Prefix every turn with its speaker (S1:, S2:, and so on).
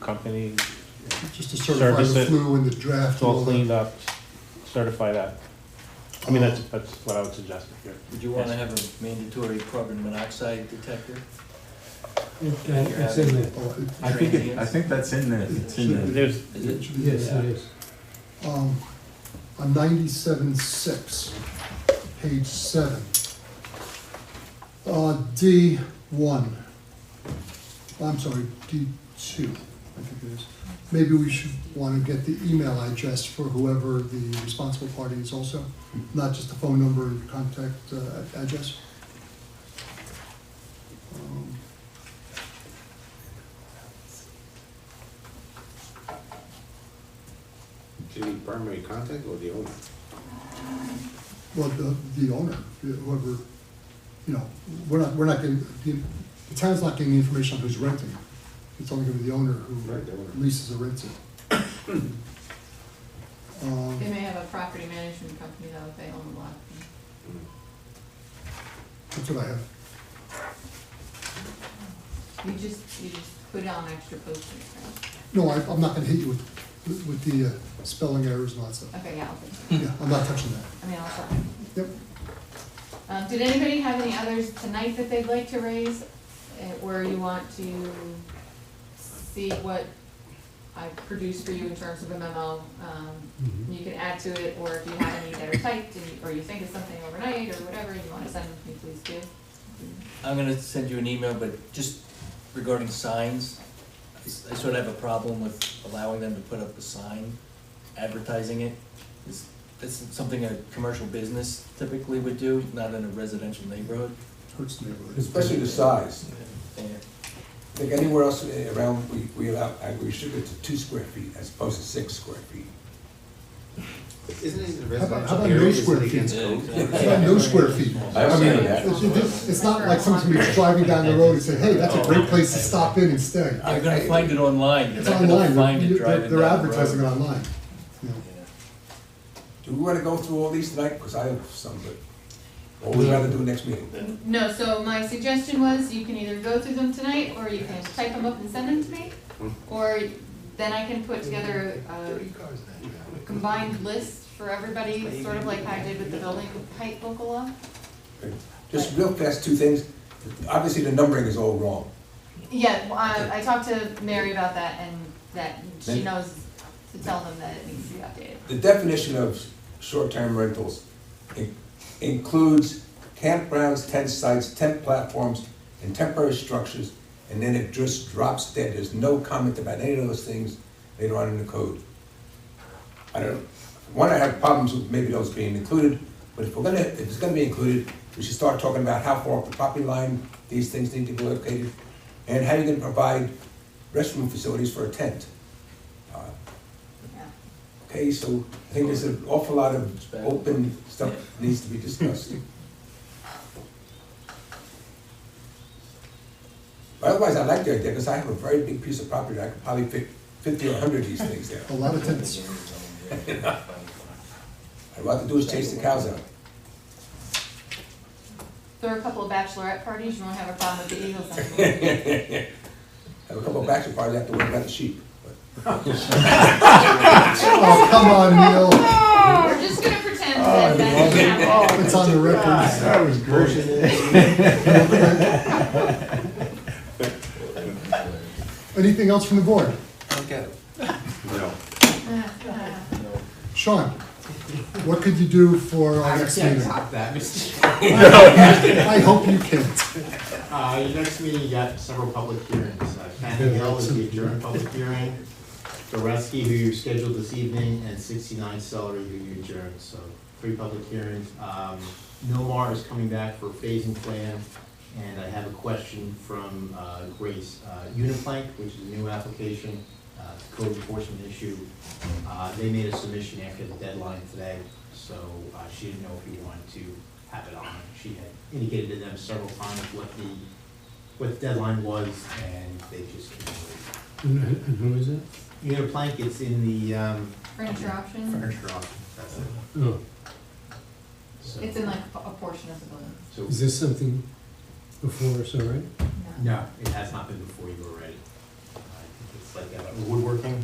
S1: company,
S2: Just to certify
S1: Service
S2: the
S1: it.
S2: flu and the draft.
S1: it's
S2: and
S1: all
S2: that.
S1: cleaned up, certify that. I mean, that's, that's what I would suggest if you're,
S3: Would you wanna have a mandatory carbon monoxide detector?
S4: It, uh, It's in there.
S2: Oh, it-
S5: I think, it- I think that's in there, it's in there.
S1: there's,
S3: Is
S2: it
S3: it,
S2: should be-
S4: Yes, it is.
S2: Um, on ninety-seven six, page seven. Uh, D one. I'm sorry, D two, I think it is. Maybe we should wanna get the email address for whoever the responsible party is also, not just the phone number and contact, uh, address. Um,
S6: Do you need primary contact or the owner?
S2: Well, the, the owner, whoever, you know, we're not, we're not getting, the, the town's not getting information on who's renting. It's only gonna be the owner
S6: Right, the
S2: who
S6: owner.
S2: leases or rents it. Um,
S7: They may have a property management company though, if they own a lot.
S2: That's what I have.
S7: You just, you just put on extra posters, right?
S2: No, I, I'm not gonna hit you with, with the uh, spelling errors and all that stuff.
S7: Okay, yeah, I'll fix it.
S2: Yeah, I'm not touching that.
S7: I mean, I'll try.
S2: Yep.
S7: Um, did anybody have any others tonight that they'd like to raise? eh, Or you want to see what I produced for you in terms of a memo? Um,
S4: Mhm.
S7: you can add to it, or if you have any that are typed, and you- or you think of something overnight, or whatever, and you wanna send them to me, please do.
S3: I'm gonna send you an email, but just regarding signs, I s- I sort of have a problem with allowing them to put up a sign, advertising it. It's, it's something a commercial business typically would do, not in a residential neighborhood.
S2: Hurts the neighborhood.
S8: Especially the size.
S3: And
S8: Like anywhere else eh, around, we, we allow, uh, we restrict it to two square feet as opposed to six square feet.
S6: Isn't it a
S2: How about- how
S6: residential
S2: about
S6: area,
S2: no
S6: isn't
S2: square
S6: it
S2: feet?
S6: against
S3: Yeah,
S6: code?
S2: It's not no square feet.
S8: I
S2: I
S8: don't
S2: mean,
S8: see that.
S2: it's, it's- it's not like someone's gonna be driving down the road and say, hey, that's a great place to stop in and stay.
S3: You're gonna find it online, you're
S2: It's
S3: not gonna
S2: online,
S3: find it
S2: they're, they're-
S3: driving down
S2: they're
S3: the
S2: advertising it
S3: road.
S2: online. you know.
S3: Yeah.
S8: Do we wanna go through all these tonight? Because I have some, but, or we'd rather do next meeting.
S7: No, so my suggestion was you can either go through them tonight, or you can type them up and send them to me, or then I can put together a combined list for everybody, sort of like I did with the building height local law.
S8: Just real fast, two things. Obviously, the numbering is all wrong.
S7: Yeah, well, I, I talked to Mary about that, and that she knows to tell them that it needs to be updated.
S8: The definition of short-term rentals in- includes campgrounds, tent sites, tent platforms, and temporary structures, and then it just drops dead. There's no comment about any of those things later on in the code. I don't, one, I have problems with maybe those being included, but if we're gonna, if it's gonna be included, we should start talking about how far up the property line these things need to be located, and how you're gonna provide restroom facilities for a tent. Uh,
S7: Yeah.
S8: Okay, so I think there's an awful lot of open stuff that needs to be discussed. But Otherwise, I like the idea, because I have a very big piece of property, I could probably fit fifty or hundred of these things there.
S2: A lot of tenants.
S8: I'd rather do is chase the cows out.
S7: There are a couple of bachelorette parties, you won't have a problem with the Eagles anymore.
S8: Have a couple of bachelor parties, I have to worry about the sheep. but-
S2: Oh, come on, Neil,
S7: Oh, We're just gonna pretend that that didn't happen.
S2: it's on the record.
S5: was great.
S2: Anything else from the board?
S6: No.
S2: Sean, what could you do for our next meeting?
S9: Top that, Mr.
S2: I hope you can't.
S9: Uh, your next meeting, you got several public hearings. Uh, Fanning Hill is the adjourned public hearing, Goreski, who you scheduled this evening, and sixty-nine Celery, who you adjourned, so three public hearings. Um, Milmar is coming back for phasing plan, and I have a question from, uh, Grace. Uh, Uniplank, which is a new application, uh, it's a code enforcement issue, uh, they made a submission after the deadline today, so, uh, she didn't know if you wanted to have it on. She had indicated to them several times what the, what the deadline was, and they just couldn't wait.
S4: And who- and who is it?
S9: Uniplank, it's in the, um,
S7: Furniture option,
S9: furniture option, that's it.
S4: Oh,
S9: So-
S7: it's in like a portion of the building.
S9: So,
S4: is this something before us already?
S7: No.
S9: no, it has not been before you already. I think it's
S6: like uh, woodworking.